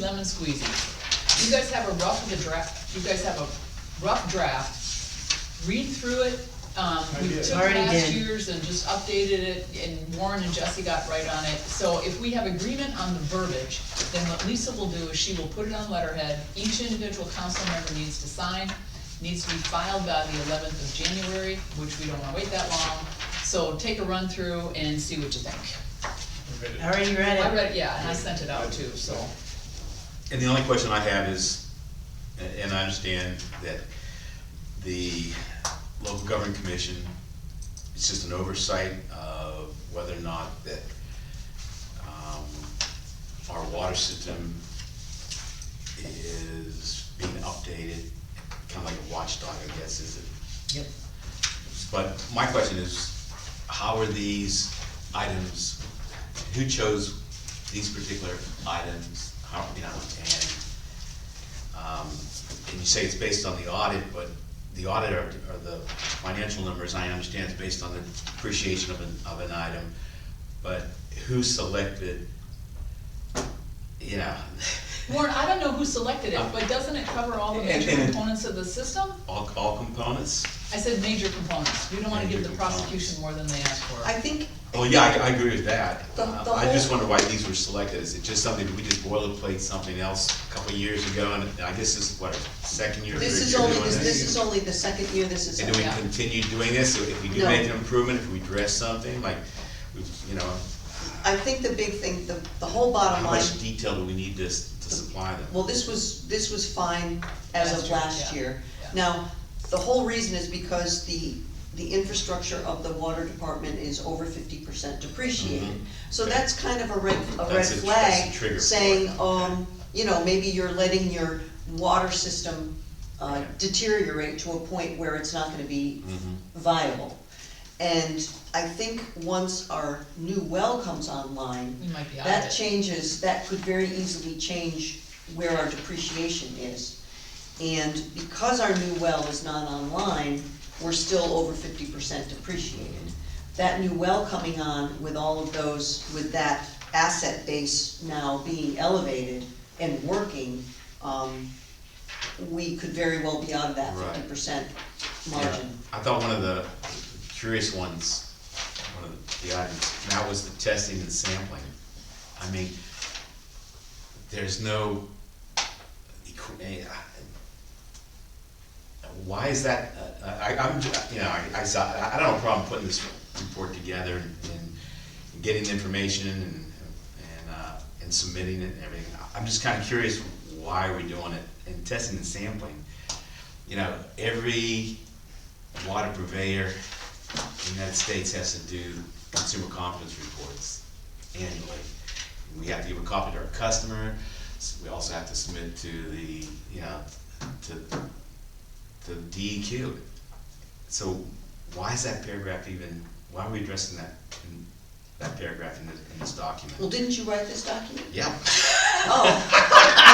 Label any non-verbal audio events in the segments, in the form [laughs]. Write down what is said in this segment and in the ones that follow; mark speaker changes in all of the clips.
Speaker 1: lemon squeezy. You guys have a rough of the draft, you guys have a rough draft. Read through it, um,
Speaker 2: I
Speaker 1: we
Speaker 2: did.
Speaker 1: took
Speaker 3: Already
Speaker 1: past
Speaker 3: did.
Speaker 1: years and just updated it, and Warren and Jesse got right on it. So if we have agreement on the verbiage, then what Lisa will do is she will put it on letterhead, each individual council member needs to sign, needs to be filed by the eleventh of January, which we don't wanna wait that long. So take a run through and see what you think.
Speaker 3: I already
Speaker 1: I
Speaker 3: read it.
Speaker 1: read, it, yeah, and I sent it out too, so.
Speaker 4: And the only question I have is, a- and I understand that the local government commission, it's just an oversight of whether or not that, um, our water system is being updated, kinda like a watchdog, I guess, is it?
Speaker 3: Yep.
Speaker 4: But my question is, how are these items, who chose these particular items, how, you know, and, um, and you say it's based on the audit, but the audit or, or the financial numbers, I understand is based on the depreciation of an, of an item, but who selected, you know,
Speaker 1: Warren, I don't know who selected it, but doesn't it cover all the major
Speaker 4: And- and-
Speaker 1: components of the system?
Speaker 4: [laughs] all, all components?
Speaker 1: I said major components, we don't wanna give
Speaker 4: Major
Speaker 1: the prosecution more than they asked for.
Speaker 5: I think,
Speaker 4: Well, Oh, yeah, I, I agree with that.
Speaker 5: The-
Speaker 4: Uh,
Speaker 5: the
Speaker 4: I just
Speaker 5: whole-
Speaker 4: wonder why these were selected. Is it just something, we just boilerplate something else a couple of years ago? And I guess this is what, our second year, third
Speaker 5: this is
Speaker 4: year
Speaker 5: only,
Speaker 4: doing
Speaker 5: this this
Speaker 4: this?
Speaker 5: is only the second year this is.
Speaker 4: And do we
Speaker 1: Yeah.
Speaker 4: continue doing this? So If we do
Speaker 5: No.
Speaker 4: make an improvement, if we address something, like, we- you know,
Speaker 5: I think the big thing, the, the whole bottom
Speaker 4: how
Speaker 5: line,
Speaker 4: much detail do we need to, s- to supply them?
Speaker 5: well, this was, this was fine as
Speaker 1: Last
Speaker 5: of
Speaker 1: year,
Speaker 5: last
Speaker 1: yeah,
Speaker 5: year.
Speaker 1: yeah.
Speaker 5: Now, the whole reason is because the, the infrastructure of the water department is over fifty percent depreciated.
Speaker 4: Mhm.
Speaker 5: So
Speaker 4: Okay.
Speaker 5: that's kind of a red, a red
Speaker 4: That's a tr- that's a
Speaker 5: flag,
Speaker 4: trigger for it.
Speaker 5: saying,
Speaker 4: Okay.
Speaker 5: um, you know, maybe you're letting your water system uh,
Speaker 4: Okay.
Speaker 5: deteriorate to a point where it's not gonna be
Speaker 4: Mhm.
Speaker 5: viable. And I think once our new well comes online,
Speaker 1: We might be out
Speaker 5: that
Speaker 1: of it.
Speaker 5: changes, that could very easily change where our depreciation is. And because our new well is not online, we're still over fifty percent depreciated. That new well coming on with all of those, with that asset base now being elevated and working, um, we could very well be out of that
Speaker 4: Right.
Speaker 5: fifty percent
Speaker 4: Yeah.
Speaker 5: margin.
Speaker 4: I thought one of the curious ones, one of the items, and that was the testing and sampling. I mean, there's no, equi- eh, I- why is that, uh, I, I'm, ju- you know, I, I saw, I I don't have a problem putting this report together and and getting the information and, and, uh, and submitting it and everything. I'm just kinda curious why we're doing it and testing and sampling you know, every water purveyor in the United States has to do consumer confidence reports annually. We have to give a copy to our customer, s- we also have to submit to the, you know, to, to DEQ. So why is that paragraph even, why are we addressing that, in- that paragraph in this, in this
Speaker 5: Well,
Speaker 4: document?
Speaker 5: didn't you write this document?
Speaker 4: Yeah.
Speaker 5: Oh.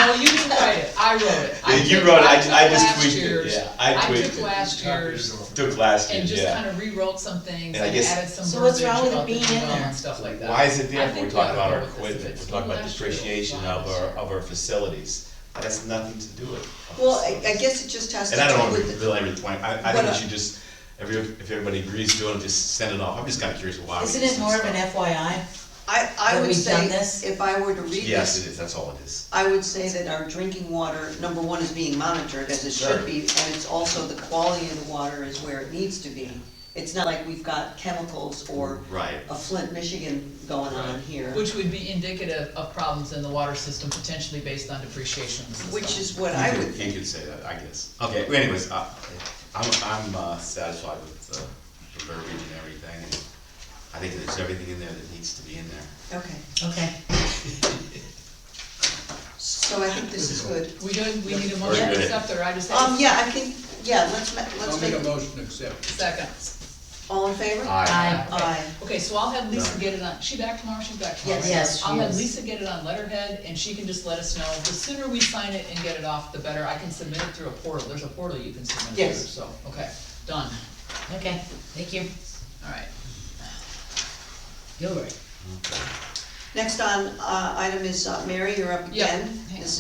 Speaker 1: No, you didn't write it, I wrote it. I
Speaker 4: Yeah, you
Speaker 1: took-
Speaker 4: wrote it. I
Speaker 1: took
Speaker 4: ju- I just
Speaker 1: last
Speaker 4: tweaked it,
Speaker 1: year's-
Speaker 4: yeah. I tweaked
Speaker 1: took
Speaker 4: it.
Speaker 1: last year's
Speaker 4: Took last
Speaker 1: and just kinda rewrote some things
Speaker 4: And I
Speaker 1: and
Speaker 4: guess-
Speaker 1: added some
Speaker 3: So what's
Speaker 1: verbiage
Speaker 3: wrong with it
Speaker 1: about the
Speaker 3: being in
Speaker 1: dwell
Speaker 3: there?
Speaker 1: and stuff like that.
Speaker 4: Why is it
Speaker 1: I
Speaker 4: there?
Speaker 1: think
Speaker 4: We're
Speaker 1: we
Speaker 4: talking
Speaker 1: oughta
Speaker 4: about our
Speaker 1: go with this. If
Speaker 4: equipment,
Speaker 1: it's
Speaker 4: we're talking about
Speaker 1: last year,
Speaker 4: depreciation
Speaker 1: why
Speaker 4: of
Speaker 1: this
Speaker 4: our,
Speaker 1: year?
Speaker 4: of our facilities. That has nothing to do with. our
Speaker 5: Well, I, I
Speaker 4: facilities.
Speaker 5: guess it just has to
Speaker 4: And I don't
Speaker 5: do
Speaker 4: want to
Speaker 5: with,
Speaker 4: belabor the point, I, I think
Speaker 5: But,
Speaker 4: we
Speaker 5: uh,
Speaker 4: should just, every, if everybody agrees to it, just send it off. I'm just kinda curious why. we
Speaker 3: Isn't
Speaker 4: just
Speaker 3: it more of an
Speaker 4: send stuff.
Speaker 3: FYI?
Speaker 5: I, I
Speaker 3: That
Speaker 5: would
Speaker 3: we've
Speaker 5: say,
Speaker 3: done this?
Speaker 5: if I were to read
Speaker 4: Yes, it
Speaker 5: this,
Speaker 4: is, that's all it is.
Speaker 5: I would say that our drinking water, number one, is being monitored as it
Speaker 4: Sure.
Speaker 5: should be, and it's also the quality of the water is where it needs to be. It's not like we've got chemicals or
Speaker 4: Right.
Speaker 5: a Flint, Michigan going on here,
Speaker 1: Which would be indicative of problems in the water system potentially based on depreciation of the system.
Speaker 5: which is what I
Speaker 4: You
Speaker 5: would
Speaker 4: could- You
Speaker 5: think.
Speaker 4: could say that, I guess. Okay, well, anyways, I, I'm, I'm uh, satisfied with uh, the verbiage and everything. and I think there's everything in there that needs to be in there.
Speaker 5: Okay,
Speaker 3: Okay.
Speaker 5: so I think this is good.
Speaker 1: We don't, we need a motion to
Speaker 4: good.
Speaker 1: accept or I just have
Speaker 5: Um, yeah, I think, yeah, let's ma-
Speaker 2: I'll
Speaker 5: let's
Speaker 2: make a
Speaker 5: make,
Speaker 2: motion to accept.
Speaker 1: seconds.
Speaker 5: all in favor?
Speaker 3: Aye.
Speaker 1: Okay.
Speaker 5: Aye.
Speaker 1: Okay, so I'll have Lisa get it on, she back tomorrow, she's back tomorrow.
Speaker 5: Yes.
Speaker 1: right?
Speaker 3: Yes, she
Speaker 1: I'll have
Speaker 3: is.
Speaker 1: Lisa get it on letterhead, and she can just let us know, the sooner we sign it and get it off, the better, I can submit it through a portal, there's a portal you can submit it
Speaker 5: Yes.
Speaker 1: through, so, okay, done,
Speaker 3: Okay, thank you.
Speaker 1: alright.
Speaker 3: You're right.
Speaker 5: Next on, uh, item is, uh, Mary, you're up
Speaker 1: Yeah,
Speaker 5: again.
Speaker 1: hang on.
Speaker 5: This